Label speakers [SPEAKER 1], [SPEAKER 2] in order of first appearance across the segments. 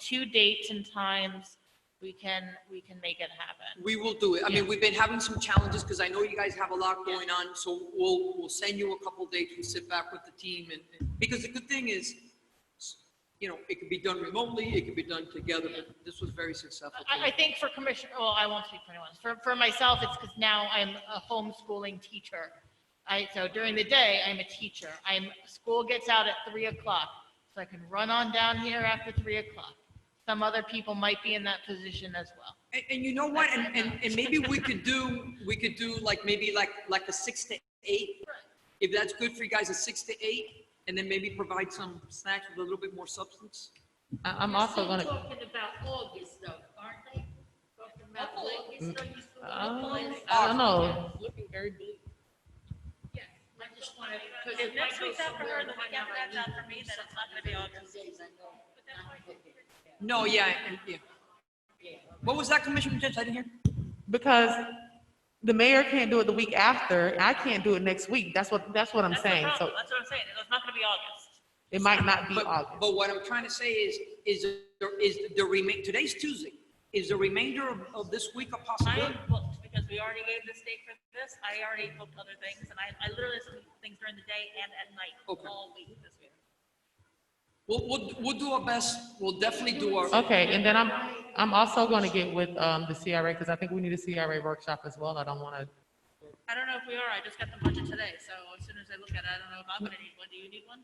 [SPEAKER 1] two dates and times, we can, we can make it happen.
[SPEAKER 2] We will do it. I mean,
[SPEAKER 1] Yeah.
[SPEAKER 2] we've been having some challenges because I know you guys have a lot going on, so we'll, we'll send you a couple dates. We'll sit back with the team and, and- because the good thing is, you know, it can be done remotely, it can be done together, but this was very successful.
[SPEAKER 1] I, I think for Commissioner, well, I won't speak for anyone. For, for myself, it's because now I'm a homeschooling teacher. I, so during the day, I'm a teacher. I'm, school gets out at three o'clock, so I can run on down here after three o'clock. Some other people might be in that position as well.
[SPEAKER 2] And, and you know what? And, and, and maybe we could do, we could do like, maybe like, like a six to eight. If that's good for you guys, a six to eight, and then maybe provide some snacks with a little bit more substance.
[SPEAKER 3] I- I'm also
[SPEAKER 4] They're
[SPEAKER 3] gonna.
[SPEAKER 4] still Talking about August though, aren't they? Talking about August, are you still?
[SPEAKER 3] Um, I don't know. Looking very bleak.
[SPEAKER 4] Yeah, I just wanted.
[SPEAKER 5] If next week's out for her, the week after that's out for me, then it's not gonna be August.
[SPEAKER 2] No, yeah, and- yeah. What was that, Commissioner Judge? I didn't hear.
[SPEAKER 3] Because the mayor can't do it the week after, and I can't do it next week. That's what, that's what I'm
[SPEAKER 5] That's the
[SPEAKER 3] saying. So
[SPEAKER 5] problem. That's what I'm saying, it's not gonna be August.
[SPEAKER 3] it might not be
[SPEAKER 2] But,
[SPEAKER 3] August.
[SPEAKER 2] but what I'm trying to say is, is, there- is the remain, today's Tuesday, is the remainder of, of this week a
[SPEAKER 5] I
[SPEAKER 2] possibility?
[SPEAKER 5] am booked because we already gave this date for this, I already booked other things, and I, I literally have some things during the day and at night,
[SPEAKER 2] Okay.
[SPEAKER 5] all week this week.
[SPEAKER 2] We'll, we'll, we'll do our best, we'll definitely do our,
[SPEAKER 3] Okay, and then I'm, I'm also gonna get with, um, the CRA, because I think we need a CRA workshop as well. I don't wanna,
[SPEAKER 5] I don't know if we are, I just got the budget today, so as soon as I look at it, I don't know if I'm gonna need one, do you need one?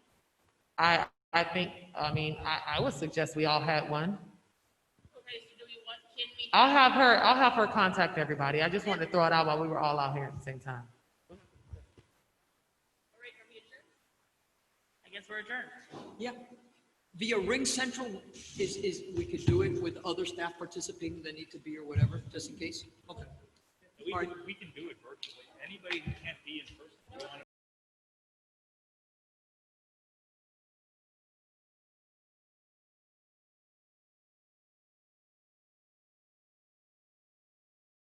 [SPEAKER 3] I, I think, I mean, I, I would suggest we all had one.
[SPEAKER 5] Okay, so do we want, can we?
[SPEAKER 3] I'll have her, I'll have her contact everybody. I just wanted to throw it out while we were all out here at the same time.
[SPEAKER 5] All right, are we adjourned? I guess we're adjourned.
[SPEAKER 2] yeah. Via Ring Central is, is, we could do it with other staff participating that need to be or whatever, just in case. Okay.
[SPEAKER 6] We
[SPEAKER 2] All right.
[SPEAKER 6] can, we can do it virtually. Anybody who can't be in person, if you want